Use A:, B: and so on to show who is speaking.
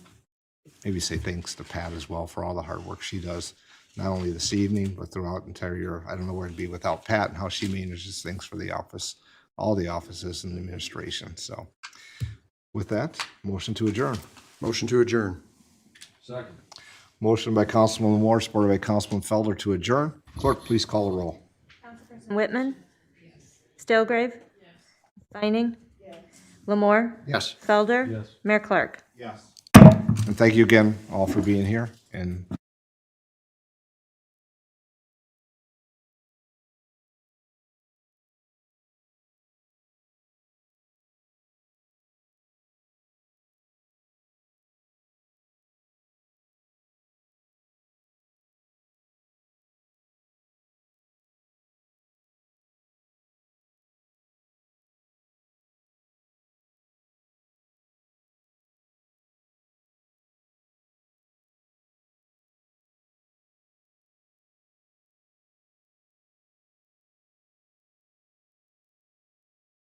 A: maybe say thanks to Pat as well for all the hard work she does, not only this evening, but throughout the entire year. I don't know where I'd be without Pat and how she manages things for the office, all the offices and administration. So with that, motion to adjourn.
B: Motion to adjourn.
C: Second.
A: Motion by Councilman Moore, supported by Councilman Felder to adjourn. Clerk, please call the roll.
D: Whitman? Stilgrave? Vining? Lamore?
B: Yes.
D: Felder? Mayor Clark?
A: And thank you again all for being here and